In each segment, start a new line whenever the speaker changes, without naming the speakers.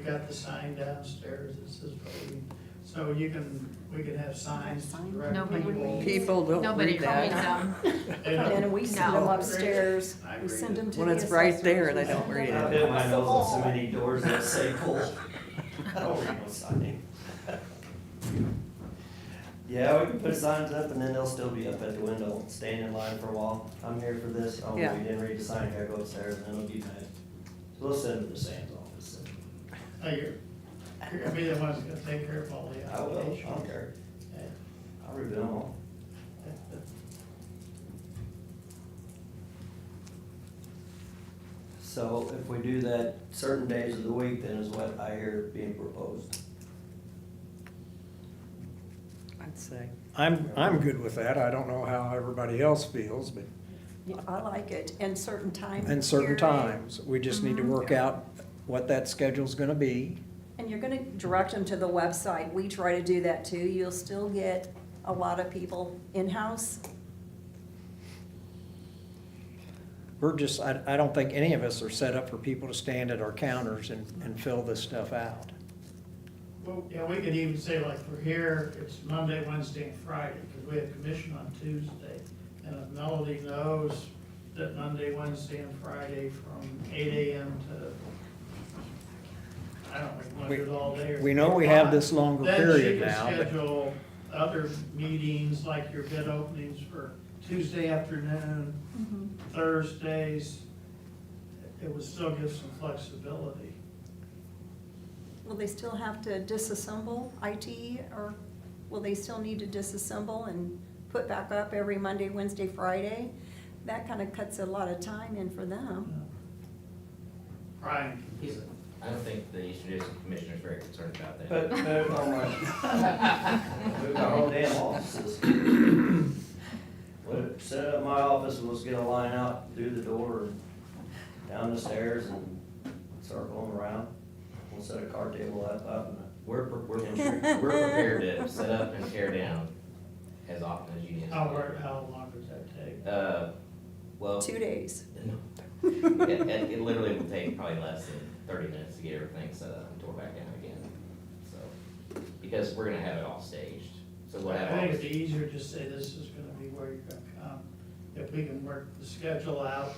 We got the sign downstairs that says voting, so you can, we can have signs to direct
Nobody
people.
reads.
People don't
Nobody
read
reads
that.
them.
They don't-
And we send them
No.
upstairs,
I
we
read
send
it.
them to the
When it's right there, they don't read
I've
it.
been my nose on so many doors that say pull. No real sign. Yeah, we can put signs up and then they'll still be up at the window, staying in line for a while. I'm here for this, oh, you
Yeah.
didn't read the sign, I gotta go upstairs, and then it'll be night. We'll send it to Sam's office.
Oh, You're you're gonna be the ones that's gonna take care of all the
I will, I
applications.
don't care,
Yeah.
I'll review them all. So if we do that certain days of the week, then is what I hear being proposed.
I'd say.
I'm, I'm good with that. I don't know how everybody else feels, but,
Yeah, I like it, and certain time.
and certain
period.
times, we just need to work out what that schedule's gonna be.
And you're gonna direct them to the website, we try to do that too, you'll still get a lot of people in-house.
We're just, I, I don't think any of us are set up for people to stand at our counters and, and fill this stuff out.
Well, yeah, we could even say like, we're here, it's Monday, Wednesday, and Friday, because we have commission on Tuesday. And if Melody knows that Monday, Wednesday, and Friday from eight AM to, I don't know, we want to do it all day. or-
We know we have this longer
Then she
period
can
now, but
schedule other meetings, like your bid openings for Tuesday afternoon, Thursdays. It would still give some flexibility.
Will they still have to disassemble IT, or will they still need to disassemble and put back up every Monday, Wednesday, Friday? That kinda cuts a lot of time in for them.
Brian,
He's, I don't think the Eastern District Commissioner is very concerned about that.
But, but, oh my. We've got our own damn offices. Well, set up my office and let's get a line out through the door and down the stairs and circle them around. We'll set a card table up, up and
We're, pre- we're, we're prepared to set up and tear down as often as you need.
how, wor- how long does that take?
Uh, well,
Two days.
it, it it literally will take probably less than thirty minutes to get everything set up and tore back down again, so. Because we're gonna have it all staged, so we'll have
I
all
think it'd
the
be easier to just say this is gonna be where you're gonna come, if we can work the schedule out.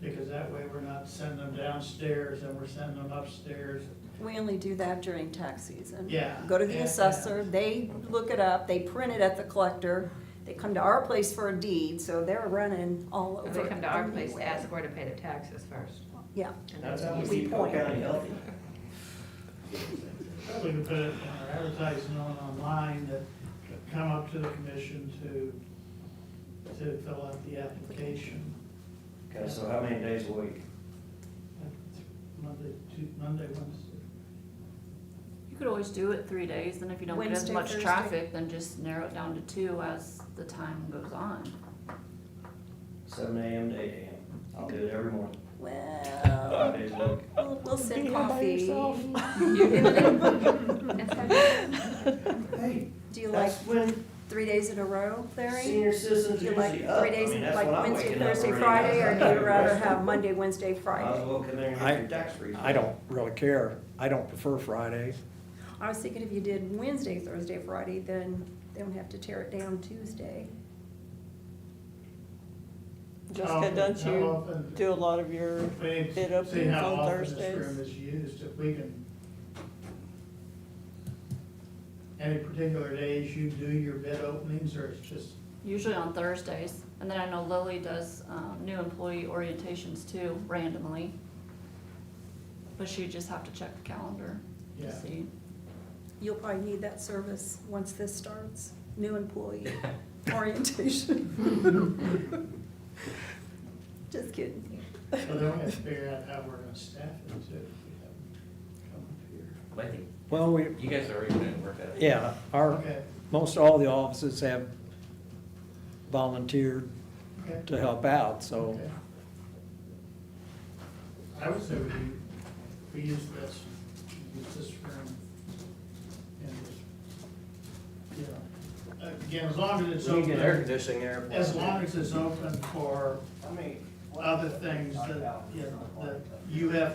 Because that way we're not sending them downstairs and we're sending them upstairs.
We only do that during tax season.
Yeah.
Go to the
Yeah,
assessor, they look it up, they print it at the collector, they come to our place for a deed, so they're running all
Or
over.
They come to our place to
anyway.
ask where to pay their taxes first.
Yeah,
and
that's
then
how we
We
keep Cole
point.
County healthy.
We can put it in our advertising on online that come up to the commission to, to fill out the application.
Okay, so how many days a week?
Monday, Tu- Monday, Wednesday.
You could always do it three days, and if you don't get as
Wednesday,
much
Thursday.
traffic, then just narrow it down to two as the time goes on.
Seven AM to eight AM. I'll do it every morning, five
well,
days a week.
we'll- we'll send
Being all by
coffee.
yourself.
Instead of-
Hey,
Do you like
that's when
three days in a row, Larry?
senior citizens
Do you like
usually up.
three
I
days,
mean, that's
like
when I'm
Wednesday,
waking up
Thursday,
already.
Friday, or do you rather
Rest of
have Monday, Wednesday,
Might as
Friday?
well come in and
I-
get your tax refund.
I don't really care. I don't prefer Friday.
I was thinking if you did Wednesday, Thursday, Friday, then they don't have to tear it down Tuesday.
How
Jessica,
often-
don't
how
you
often-
do a lot of your,
We
Bid
need to see
openings
how
on
often this
Thursdays.
room is used, if we can. Any particular days you do your bid openings, or it's just,
Usually on Thursdays, and then I know Lily does, um, new employee orientations too, randomly. But she just have to check the calendar
yeah,
to see.
You'll probably need that service once this starts, new employee orientation. Just kidding.
so then we have to figure out how we're gonna staff it too. if we have them come up here.
I think
Well, we,
You guys are already gonna work that.
yeah, our,
Okay,
most all the offices have volunteered
okay.
to help out, so.
okay. I would say we, we use this, use this room, and just, you know, again, as long as it's
So you get air
open,
conditioning there.
as long as it's open for
I mean.
other things that, you know, that you have